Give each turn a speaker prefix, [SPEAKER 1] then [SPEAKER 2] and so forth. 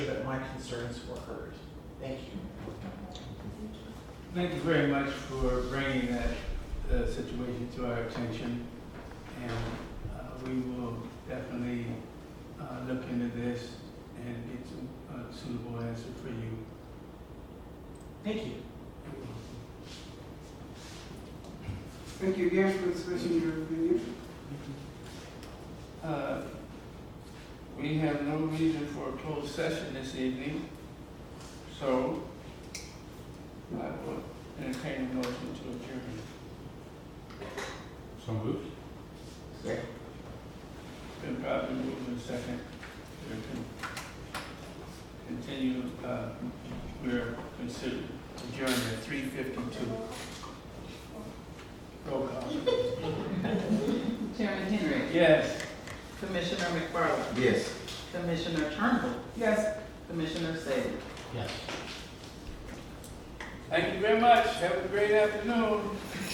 [SPEAKER 1] concerns were heard. Thank you.
[SPEAKER 2] Thank you very much for bringing that uh, situation to our attention. And uh, we will definitely uh, look into this and get some uh, suitable answer for you.
[SPEAKER 1] Thank you.
[SPEAKER 3] Thank you again for expressing your opinion.
[SPEAKER 2] Uh, We have no reason for a closed session this evening, so I will entertain a motion to adjourn.
[SPEAKER 4] So moved.
[SPEAKER 2] Been properly moved in second. We're con- Continue, uh, we're considered adjourned at three fifty-two. Roll call.
[SPEAKER 5] Chairman Henry.
[SPEAKER 2] Yes.
[SPEAKER 5] Commissioner McFarland.
[SPEAKER 4] Yes.
[SPEAKER 5] Commissioner Turnbull.
[SPEAKER 3] Yes,
[SPEAKER 5] Commissioner Saley.
[SPEAKER 2] Thank you very much. Have a great afternoon.